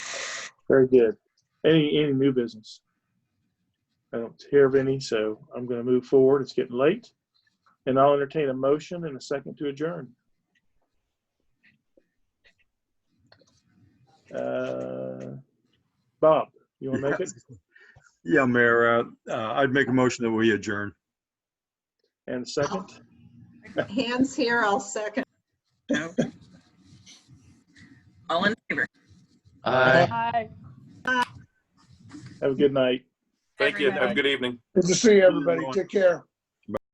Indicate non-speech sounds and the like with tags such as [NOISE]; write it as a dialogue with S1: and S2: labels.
S1: Very good. Any, any new business? I don't hear of any, so I'm going to move forward. It's getting late. And I'll entertain a motion and a second to adjourn. Uh, Bob, you want to make it?
S2: [LAUGHS] Yeah, Mayor, uh, uh, I'd make a motion that we adjourn.
S1: And second?
S3: Hands here, I'll second.
S4: Okay. All in favor?
S5: Aye.
S6: Hi.
S1: Have a good night.
S7: Thank you.
S6: Everybody.
S7: Have a good evening.
S8: Good to see everybody. Take care.